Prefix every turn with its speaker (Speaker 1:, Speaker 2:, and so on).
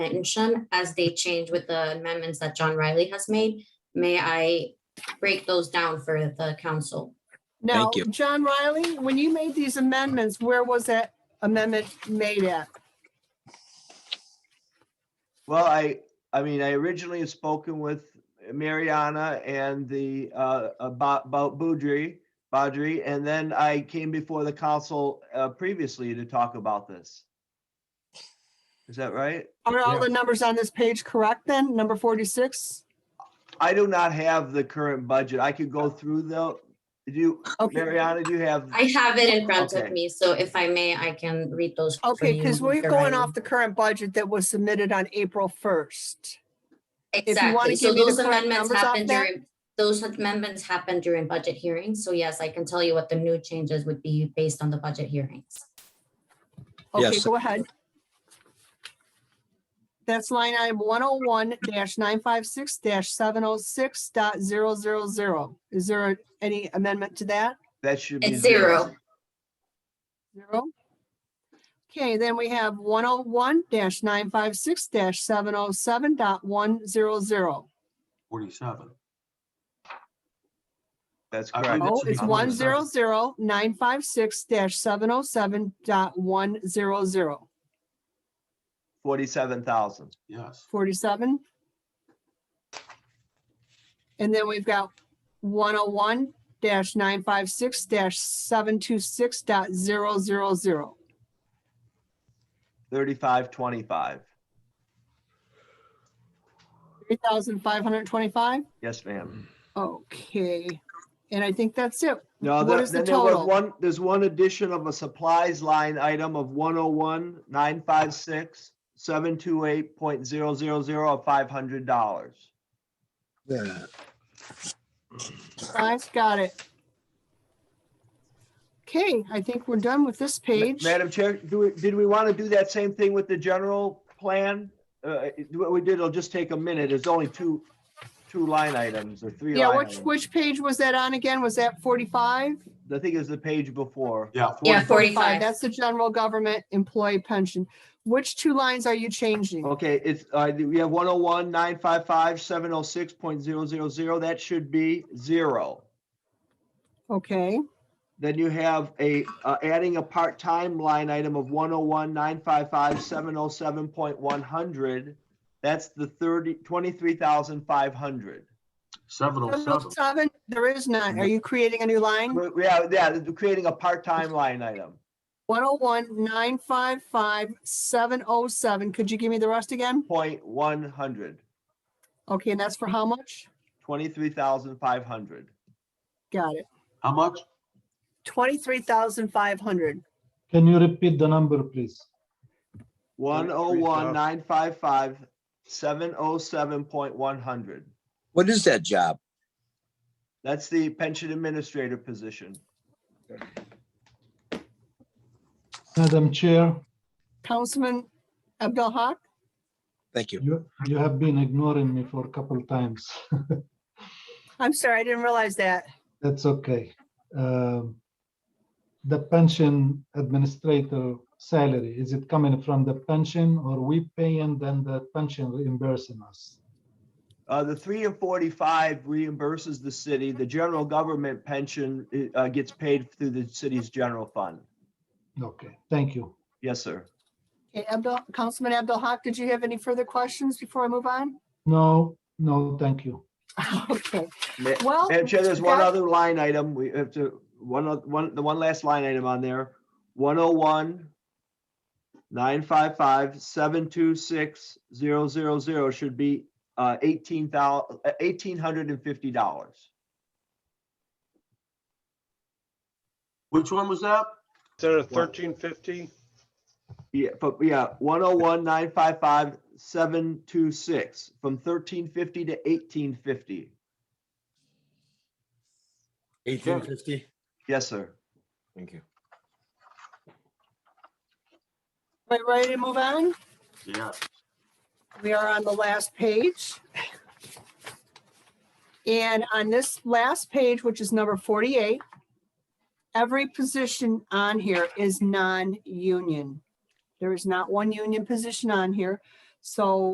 Speaker 1: mention as they change with the amendments that John Riley has made. May I break those down for the council?
Speaker 2: Now,
Speaker 3: Thank you.
Speaker 2: John Riley, when you made these amendments, where was that amendment made at?
Speaker 4: Well, I, I mean, I originally had spoken with Mariana and the, uh, about, about Boudry, Badri, and then I came before the council, uh, previously to talk about this. Is that right?
Speaker 2: Are all the numbers on this page correct then? Number 46?
Speaker 4: I do not have the current budget. I could go through the, do you,
Speaker 2: Okay,
Speaker 4: Mariana, do you have?
Speaker 1: I have it in front of
Speaker 4: Okay.
Speaker 1: me, so if I may, I can read those. for
Speaker 2: okay,
Speaker 1: you,
Speaker 2: because we're
Speaker 1: Mr.
Speaker 2: going
Speaker 1: Riley.
Speaker 2: off the current budget that was submitted on April 1st. you wanna
Speaker 1: Exactly, so
Speaker 2: give me the
Speaker 1: those
Speaker 2: current
Speaker 1: amendments
Speaker 2: numbers off
Speaker 1: happen
Speaker 2: that?
Speaker 1: during, those amendments happen during budget hearings, so yes, I can tell you what the new changes would be based on the budget hearings.
Speaker 2: Okay,
Speaker 3: Yes.
Speaker 2: go ahead. That's line item 101-956-706.000. Is there any amendment to that?
Speaker 4: That should be.
Speaker 1: It's zero.
Speaker 2: Zero. Okay, then we have one oh one nine five six 707.100.
Speaker 5: Forty-seven.
Speaker 4: That's
Speaker 5: I
Speaker 4: correct.
Speaker 5: believe
Speaker 2: Oh,
Speaker 5: should be
Speaker 2: it's one
Speaker 5: 100.
Speaker 2: zero zero nine five six 707.100.
Speaker 4: Forty-seven thousand.
Speaker 5: Yes.
Speaker 2: forty-seven. And then we've got one oh one nine five six 726.000.
Speaker 4: Thirty-five twenty-five.
Speaker 2: Three thousand five hundred twenty-five?
Speaker 4: Yes, ma'am.
Speaker 2: Okay, and I think that's it.
Speaker 4: No,
Speaker 2: What
Speaker 4: there-
Speaker 2: is the
Speaker 4: then there was
Speaker 2: total?
Speaker 4: one, there's one addition of a supplies line item of one oh one, nine five six, seven two eight point zero zero zero of five hundred dollars.
Speaker 3: Yeah.
Speaker 2: I've got it. Okay, I think we're done with this page.
Speaker 4: Madam Chair, do we, did we want to do that same thing with the general plan? Uh, it- what we did, it'll just take a minute. It's only two, two line items or three
Speaker 2: Yeah,
Speaker 4: line
Speaker 2: which,
Speaker 4: items.
Speaker 2: which page was that on again? Was that forty-five?
Speaker 4: I think it was the page before.
Speaker 5: Yeah.
Speaker 1: Yeah,
Speaker 5: 40.
Speaker 1: 45.
Speaker 2: That's the general government employee pension. Which two lines are you changing?
Speaker 4: Okay, it's, uh, we have one oh one, nine five five, seven oh six point zero zero zero. That should be zero.
Speaker 2: Okay,
Speaker 4: Then you have a, uh, adding a part-time line item of one oh one, nine five five, seven oh seven point one hundred. That's the thirty, twenty-three thousand five hundred.
Speaker 5: Seven oh seven.
Speaker 2: seven, there is none. Are you creating a new line?
Speaker 4: Yeah, yeah, they're creating a part-time line item.
Speaker 2: One oh one, nine five five, seven oh seven. Could you give me the rest again?
Speaker 4: Point one hundred,
Speaker 2: Okay, and that's for how much?
Speaker 4: twenty-three thousand five hundred.
Speaker 2: Got it.
Speaker 5: How much?
Speaker 2: Twenty-three thousand five hundred.
Speaker 6: Can you repeat the number, please?
Speaker 4: One oh one, nine five five, seven oh seven point one hundred.
Speaker 3: What is that job?
Speaker 4: That's the pension administrator position.
Speaker 6: Madam Chair,
Speaker 2: Councilman Abdul Haq?
Speaker 3: Thank you.
Speaker 6: you, you have been ignoring me for a couple times.
Speaker 2: I'm sorry, I didn't realize that.
Speaker 6: That's okay. Um, The pension administrator salary, is it coming from the pension or we pay and then the pension reimbursing us?
Speaker 4: Uh, the three and forty-five reimburses the city. The general government pension, uh, gets paid through the city's general fund.
Speaker 6: Okay, thank you.
Speaker 4: Yes, sir.
Speaker 2: Okay, Abdul, Councilman Abdul Haq, did you have any further questions before I move on?
Speaker 6: No, no, thank you.
Speaker 2: Okay,
Speaker 4: Ma-
Speaker 2: well.
Speaker 4: Madam Chair, there's one
Speaker 2: that-
Speaker 4: other line item. We have to, one, oth- one, the one last line item on there, one oh one nine five five seven two six zero zero zero should be, uh, eighteen thou, uh, eighteen hundred and fifty dollars.
Speaker 5: Which one was that?
Speaker 7: Instead of thirteen fifty,
Speaker 4: Yeah, but yeah, one oh one nine five five seven two six, from thirteen fifty to eighteen fifty.
Speaker 8: Eighteen fifty?
Speaker 4: Yes, sir.
Speaker 8: Thank you.
Speaker 2: Am I ready to move on?
Speaker 5: Yeah.
Speaker 2: We are on the last page. And on this last page, which is number forty-eight, every position on here is non-union. There is not one union position on here. So